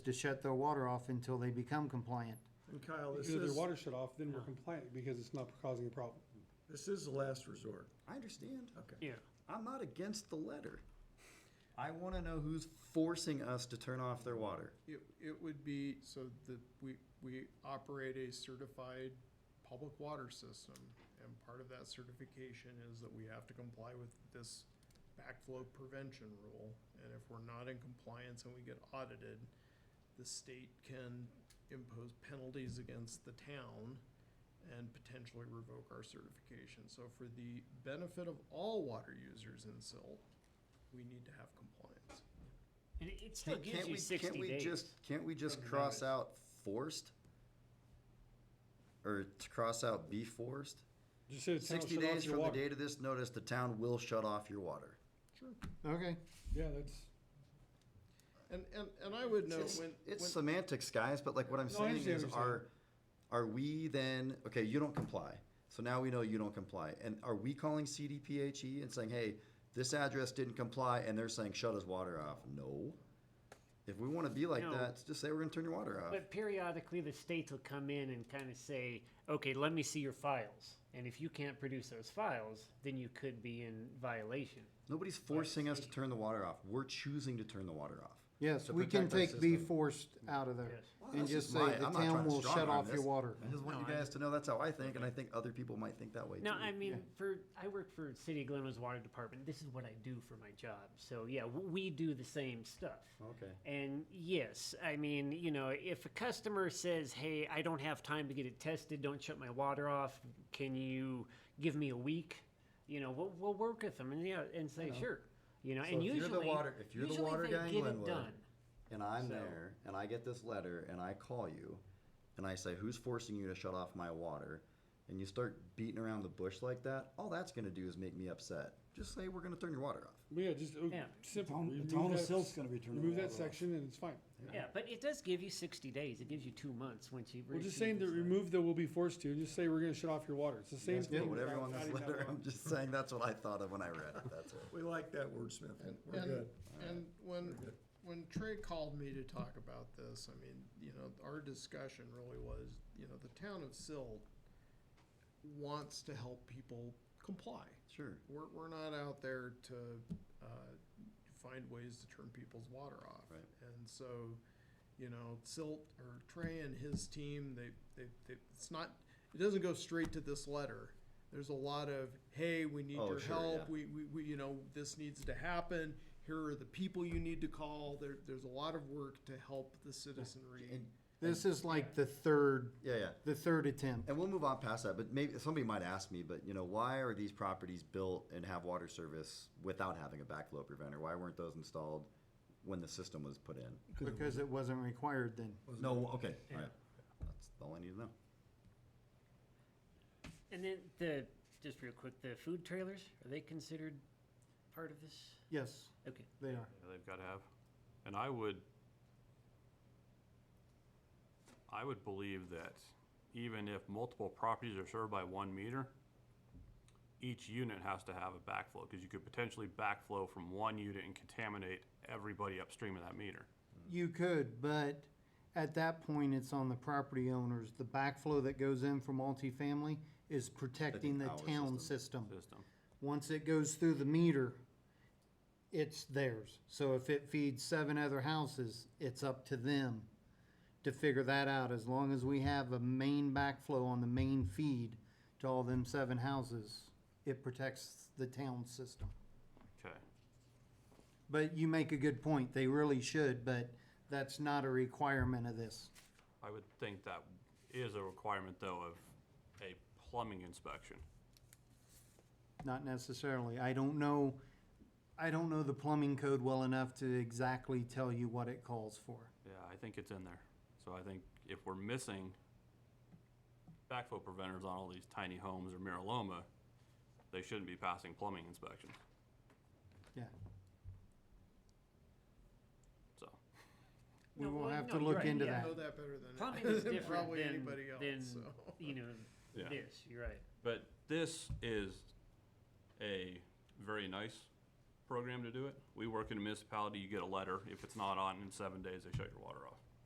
to shut their water off until they become compliant. And Kyle, this Because if their is, water shut off, then we're compliant because it's not causing a problem. this is the last resort. I understand. Okay. Yeah. I'm not against the letter. I want to know who's forcing us to turn off their water. It, it would be, so that we, we operate a certified public water system, and part of that certification is that we have to comply with this backflow prevention rule, and if we're not in compliance and we get audited, the state can impose penalties against the town and potentially revoke our certification. So for the benefit of all water users in Silt, we need to have compliance. And it- it still gives Can't you we- sixty Can't we days. just, can't we just Doesn't cross matter. out forced? Or to cross out be forced? Just say the town will Sixty shut off days your from the water. date of this notice, the town will shut off your water. Sure. Okay. Yeah, that's, And, and, and I would note It's- when. It's when- semantics, guys, but like what I'm No, I saying understand is, what you're are, are we then, okay, you don't comply. So now we know you don't comply. And are we calling CDPHE E and saying, hey, this address didn't comply, and they're saying, shut his water off? No. If we wanna be like No. that, just say we're gonna turn your water off. But periodically, the states will come in and kind of say, okay, let me see your files. And if you can't produce those files, then you could be in violation. Nobody's forcing us to turn the water off. We're choosing to turn the water off. Yes, to we can protect our take be system. forced out of there Yes. and That's just say my- the I'm not trying town to will strong shut arm off your this. water. I just want No, you I- guys to know that's how I think, and I think other people might think that way too. No, I mean, for I work for City of Glenwood's Water Department. This is what I do for my job. So yeah, w- we do the same stuff. Okay. And yes, I mean, you know, if a customer says, "Hey, I don't have time to get it tested. Don't shut my water off. Can you give me a week?" You know, we'll, we'll work with them and yeah, and say sure. You know, So and if you're the usually water- if you're the usually water they guy in get it Glenwood, done. and I'm So- there and I get this letter and I call you and I say, Who's forcing you to shut off my water? And you start beating around the bush like that, all that's gonna do is make me upset. Just say we're gonna turn your water off. yeah, just, uh, Yeah. simple. Town- the Remove town of that- Silt's gonna be turning the Remove that water off. section and it's fine. Yeah, but it does give you 60 days. It gives you two months once you. We're just receive saying to this letter. remove the will be forced to, and just say we're gonna shut off your water. It's the same Just put thing. whatever on without this adding that letter. on. I'm just saying that's what I thought of when I read it. That's it. We like that wordsmithing. We're And- good. And when, when Trey called me to talk about this, I mean, you know, our discussion really was, you know, the town of Silt wants to help people comply. Sure. We're, we're not out there to, uh, find ways to turn people's water off. Right. And so, you know, Silt or Trey and his team, they, they, they, it's not, it doesn't go straight to this letter. There's a lot of, hey, we need Oh, your sure, yeah. help, we, we, we, you know, this needs to happen, here are the people you need to call, there, there's a lot of work to help the citizenry. And- This is like the third, Yeah, yeah. the third attempt. And we'll move on past that, but maybe somebody might ask me, but you know, why are these properties built and have water service without having a backflow preventer? Why weren't those installed when the system was put in? Because it wasn't required then. No, okay, all right. That's all I need to know. And then the just real quick, the food trailers are they considered part of this? Yes, Okay. they are. Yeah, They've got to have, and I would, I would believe that even if multiple properties are served by one meter, each unit has to have a backflow, because you could potentially backflow from one unit and contaminate everybody upstream of that meter. Mm. You could, but at that point, it's on the property owners. The backflow that goes in for multifamily is protecting the our town system. System. Once it goes through the meter, it's theirs. So if it feeds seven other houses, it's up to them to figure that out. As long as we have a main backflow on the main feed to all them seven houses, it protects the town system. Okay. But you make a good point. They really should, but that's not a requirement of this. I would think that is a requirement, though, of a plumbing inspection. Not necessarily. I don't know, I don't know the plumbing code well enough to exactly tell you what it calls for. Yeah, I think it's in there. So I think if we're missing backflow preventers on all these tiny homes or Miraloma, they shouldn't be passing plumbing inspections, Yeah. so. We No, will well, have no, to you're look right, into yeah. that. I know that better Plumbing is than different probably than, anybody than else, so. you know Yeah. this. You're right. But this is a very nice program to do it. We work in a municipality, you get a letter. If it's not on in seven days, they shut your water off.